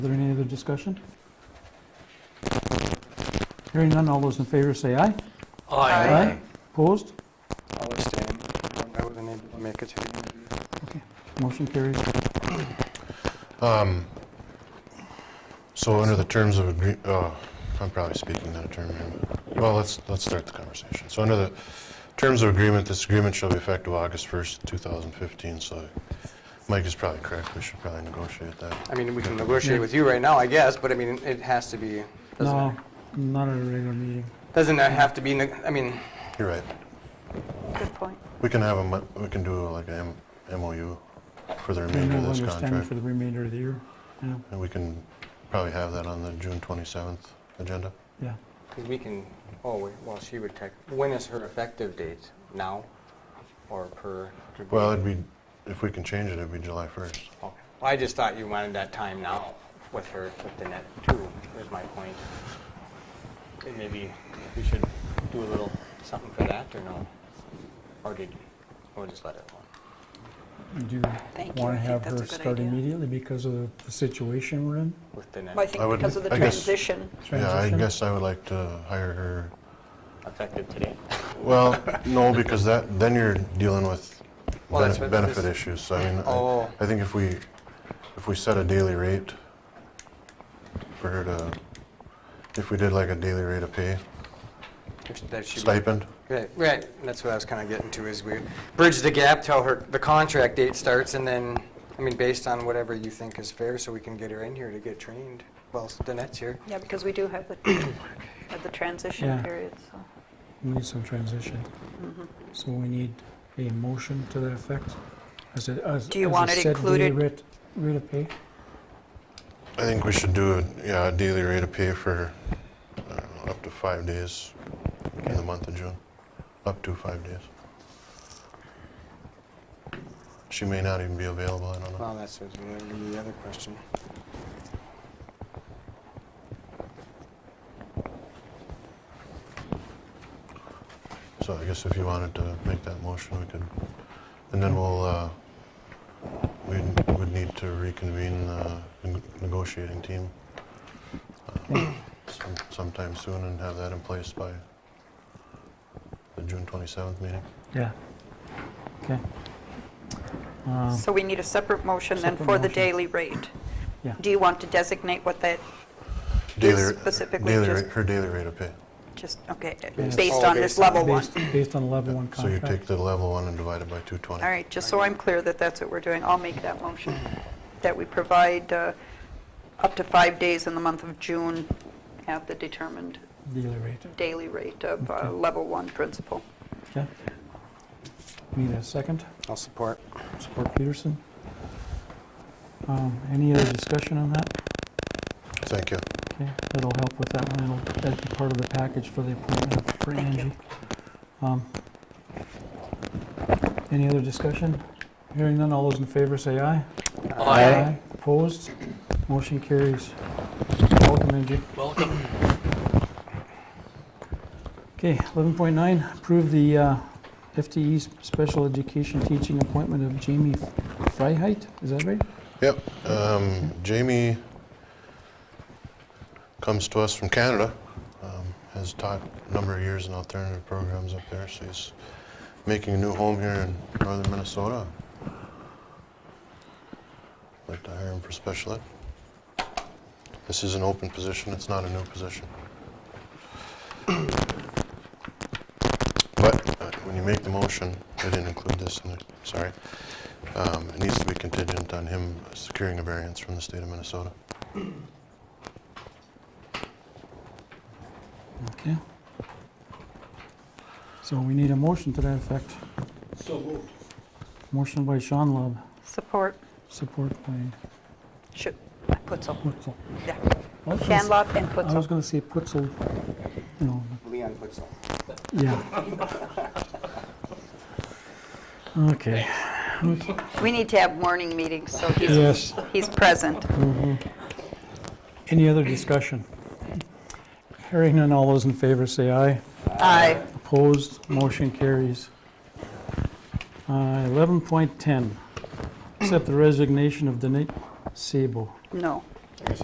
Further discussion? Hearing none, all those in favor say aye. Aye. Opposed? I'll abstain. Um, I wasn't able to make it to the interview. Motion carries. Um, So under the terms of agree, uh, I'm probably speaking out of term here. but- Well, let's, let's start the conversation. So under the terms of agreement, this agreement shall be effective August 1st, 2015, so Mike is probably correct. We should probably negotiate that. I mean, we can negotiate with you right now, I guess, but I mean, it has to be, No, doesn't, not at a regular meeting. doesn't it have to be, neg- I mean, You're right. Good point. We can have a, mo- we can do like an MOU for the remainder of Memorandum of this understanding contract. for the remainder of the year. Yeah, And we can probably have that on the June 27th agenda. yeah. 'cause we can, oh, wait, well, she would tech, when is her effective date? Now? Or per? Well, it'd be, if we can change it, it'd be July 1st. Okay. Oh, I just thought you wanted that time now with her, with the net too, is my point. And maybe we should do a little something for that, or no? Or did, or just let it alone? Do you Thank you, want I to have think that's her a good start idea. immediately because of the- the situation we're in? with the Well, I net I think would- because of the I guess- transition, Yeah, I Transition? guess I would like to hire her effective today. Well, no, because that, then you're dealing with Well, that's benef- what this- benefit issues, so I mean, Oh. I- I think if we, if we set a daily rate for her to, if we did like a daily rate of pay, That should be- stipend, Right, right, and that's what I was kind of getting to, is we bridge the gap till her, the contract date starts, and then, I mean, based on whatever you think is fair, so we can get her in here to get trained. Well, Danette's here. yeah, because we do have the, have the transition Yeah. period, so. We need some transition. So we need a motion to that effect? As a- as- Do you as a want it set daily included? rate- Rate of pay? I think we should do, a- yeah, a daily rate of pay for, I don't know, up to five days in the month of June, up to five days. She may not even be available, I don't know. Well, that's what's gonna be the other question. So I guess if you wanted to make that motion, we could, and then we'll, uh, we would need to reconvene the neg- negotiating team uh, some- sometime soon and have that in place by the June 27th meeting. Yeah. Okay. Uh, So we need a separate motion then Separate for the motion. daily rate. Yeah. Do you want to designate what that, Daily Yes, ra- specifically daily just- ra- Her daily rate of pay. just, okay, Yes. based Oh, on this based on- level one? Based based on the level one So you contract? take the level one and divide it by 220. All right, just so I'm clear that that's what we're doing, I'll make that motion, that we provide uh, up to five days in the month of June at the determined Daily rate, daily rate of uh, Okay. level one principal. okay. Need a second? I'll support. Support Peterson? Um, Any other discussion on that? Thank you. Okay, that'll help with that one, it'll, that'd be part of the package for the appointment of- for Thank you. Angie. Um, Any other discussion? Hearing none, all those in favor say aye. Opposed? Motion carries. Welcome, Angie. Welcome. Okay, 11.9, approve the uh, FTE 's special education teaching appointment of Jamie Freiheit, is that right? Yep. Um, Jamie comes to us from Canada. Um, has taught a number of years in alternative programs up there, so he's making a new home here in northern Minnesota. Like to hire him for special ed. This is an open position, it's not a new position. But uh, when you make the motion, I didn't include this in there, sorry. Um, It needs to be contingent on him securing a variance from the state of Minnesota. Okay. So we need a motion to that effect. So moved. Motion by Sean Love, Support, support by should, I put some, Putzel. yeah, I was gonna s- Scanlon and put I was some. gonna say Putzel, you know, Leon Putzel. yeah. Okay. We need to have morning meetings, so he's, Yes. he's present. Any other discussion? Hearing none, all those in favor say aye. Aye. Opposed, motion carries. Uh, 11.10, accept the resignation of Danette Sabo. No,